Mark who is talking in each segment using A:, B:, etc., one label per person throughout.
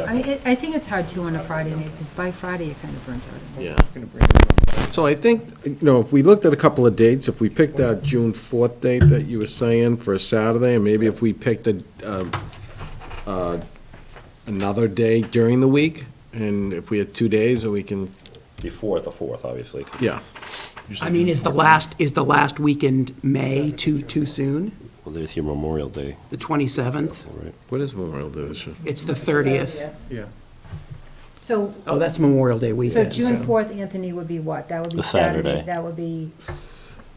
A: I, I- I think it's hard to on a Friday night, because by Friday, you're kind of burnt out.
B: Yeah.
C: So I think, you know, if we looked at a couple of dates, if we picked that June 4th date that you were saying for a Saturday, and maybe if we picked a, um, uh, another day during the week, and if we had two days, or we can,
D: Before the fourth, obviously.
C: yeah.
E: I mean, is the last, is the last weekend May too, too soon?
B: Well, there's your Memorial Day,
E: The 27th?
B: all right.
C: What is Memorial Day this year?
E: It's the 30th.
A: So,
E: Oh, that's Memorial Day
A: so
E: weekend,
A: June fourth, Anthony, would be what? That would be
B: The
A: Saturday,
B: Saturday.
A: that would be.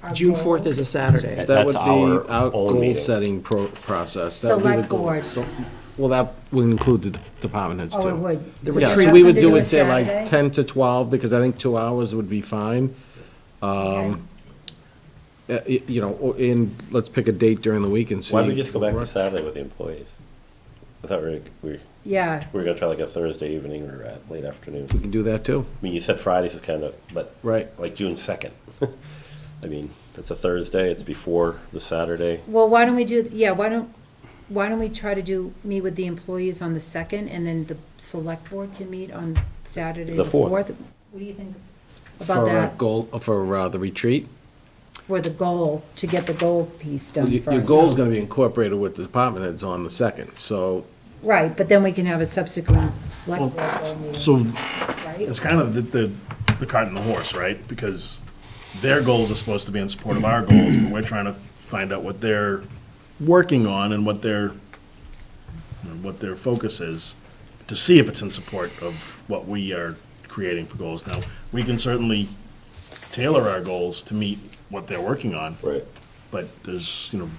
A: our
E: June
A: goal.
E: 4th is a Saturday.
B: That-
C: That
B: that's
C: would be
B: our
C: our
B: own meeting.
C: goal-setting pro- process. That would be the
A: Select
C: goal.
A: board.
C: So- Well, that would include the d- department heads, too.
A: Oh, it would.
E: The
A: So
E: retreat-
C: Yeah,
A: that's
C: so we
A: what
C: would
A: they
C: do
A: on
C: it, say, like
A: Saturday?
C: 10 to 12, because I think two hours would be fine.
A: Okay.
C: Um, Uh, y- you know, or- and let's pick a date during the week and see.
B: Why don't we just go back to
C: Right.
B: Saturday with the employees? I thought we were, we were-
A: Yeah,
B: we were gonna try like a Thursday evening or a late afternoon.
C: We can do that too,
B: I mean, you said Fridays is kind of, but.
C: Right.
B: Like June second. I mean, it's a Thursday, it's before the Saturday.
A: well, why don't we do, yeah, why don't, why don't we try to do, meet with the employees on the second, and then the select board can meet on Saturday,
B: The
A: the
B: 4th.
A: fourth? What do you think about
C: for uh,
A: that,
C: goal, for uh, the retreat.
A: for the goal, to get the goal piece done
C: Your
A: first?
C: your goal's gonna be incorporated with the department heads on the second, so,
A: Right, but then we can have a subsequent select board goal meeting,
F: So
A: right?
F: it's kind of the, the, the cart and the horse, right? Because their goals are supposed to be in support of our goals, but we're trying to find out what they're working on and what their, you know, what their focus is, to see if it's in support of what we are creating for goals. Now, we can certainly tailor our goals to meet what they're working on,
B: Right.
F: but there's, you know,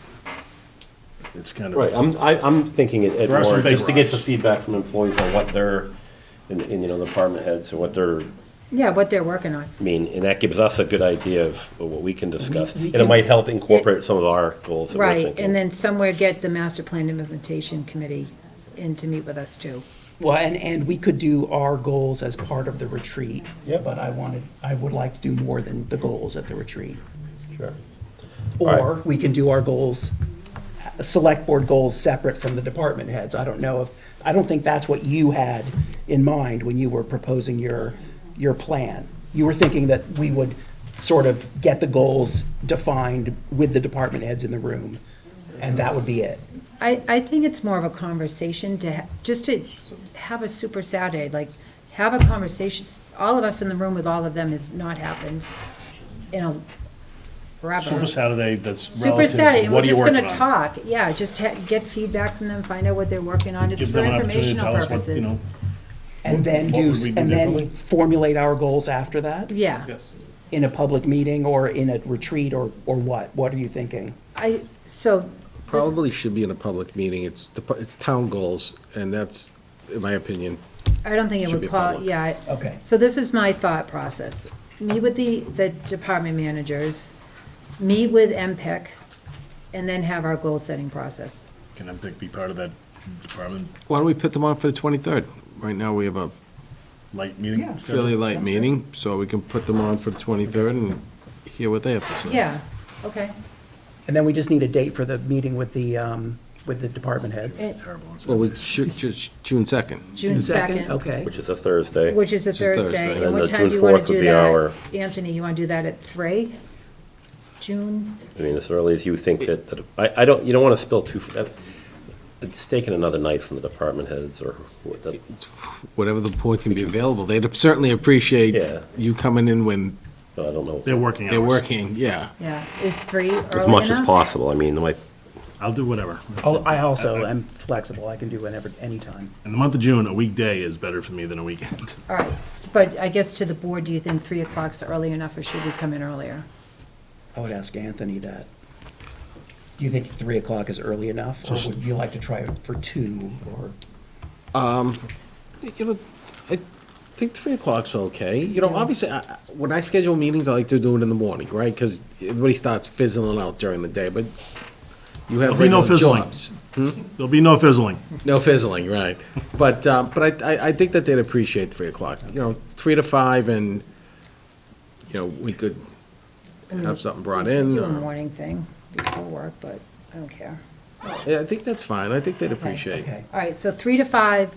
F: it's kind of.
B: Right, I'm, I, I'm thinking it, it
F: There are some
B: more,
F: big
B: just to get the
F: rocks.
B: feedback from employees on what they're, and, and, you know, the department heads and what they're,
A: Yeah, what they're working on.
B: I mean, and that gives us a good idea of what we can discuss. And it might help incorporate some of our goals that we're
A: Right,
B: thinking.
A: and then somewhere get the master plan implementation committee in to meet with us too.
E: Well, and, and we could do our goals as part of the retreat.
B: Yep.
E: But I wanted, I would like to do more than the goals at the retreat.
B: Sure. right.
E: Or we can do our goals, uh, select board goals separate from the department heads. I don't know if, I don't think that's what you had in mind when you were proposing your, your plan. You were thinking that we would sort of get the goals defined with the department heads in the room, and that would be it.
A: I, I think it's more of a conversation to, ha- just to have a super Saturday, like, have a conversation. All of us in the room with all of them has not happened in a
F: Super
A: forever.
F: Saturday, that's
A: Super
F: relative
A: Saturday,
F: to
A: and we're
F: what are you
A: just
F: working on?
A: gonna talk, yeah, just ha- get feedback from them, find out what they're working on, just
F: Gives
A: for
F: them an opportunity to
A: informational
F: tell us what, you
A: purposes.
F: know,
E: And then
F: What
E: do,
F: would we do
E: and
F: differently?
E: then formulate our goals after that?
A: Yeah.
E: In a public meeting or in a retreat or, or what? What are you thinking?
A: I, so,
C: probably should be in a public meeting. It's, dep- it's town goals, and that's, in my opinion,
A: I don't think it
C: Should be
A: would qual,
C: public.
A: yeah. I-
E: Okay.
A: So this is my thought process. Meet with the, the department managers, meet with MPEC, and then have our goal-setting process.
F: can MPIC be part of that department
C: why don't we put them on for the 23rd? Right now, we have a
F: light meeting?
C: fairly light meeting, so we can put them on for the 23rd and hear what they have to say.
A: Yeah, okay.
E: And then we just need a date for the meeting with the, um, with the department heads.
A: It-
F: Terrible. It's
C: Well, we should, should- June 2nd.
A: June second,
E: Okay.
B: Which is a Thursday.
A: which is a
C: Which is Thursday.
A: Thursday.
B: And
A: And what
B: the
A: time
B: June
A: do you want
B: 4th
A: to
B: would
A: do
B: be our-
A: that? Anthony, you want to do that at three? June,
B: I mean, as early as you think that, that- I, I don't, you don't want to spill too, that- it's taking another night from the department heads or, who- that-
C: whatever the board can be available. They'd certainly appreciate
B: Yeah.
C: you coming in when
B: I don't know.
F: They're working hours.
C: they're working, yeah.
A: yeah. Is three early enough?
B: As much as possible, I mean, like,
F: I'll do whatever.
E: Oh, I also am flexible. I can do whenever, anytime.
F: In the month of June, a weekday is better for me than a weekend.
A: All right, but I guess to the board, do you think three o'clock's early enough, or should we come in earlier?
E: I would ask Anthony that. Do you think three o'clock is early enough? Or would you like to try it for two or?
C: Um, You know, I think three o'clock's okay. You know, obviously, I- I- when I schedule meetings, I like to do it in the morning, right? Because everybody starts fizzling out during the day, but you have
F: There'll be no
C: regular
F: fizzling.
C: jobs.
F: There'll be no fizzling.
C: No fizzling, right. But, um, but I, I, I think that they'd appreciate three o'clock. You know, three to five and, you know, we could have something brought in.
A: Do a
C: or-
A: morning thing before work, but I don't care.
C: Yeah, I think that's fine. I think they'd appreciate.
E: Okay.
A: All right, so three to five,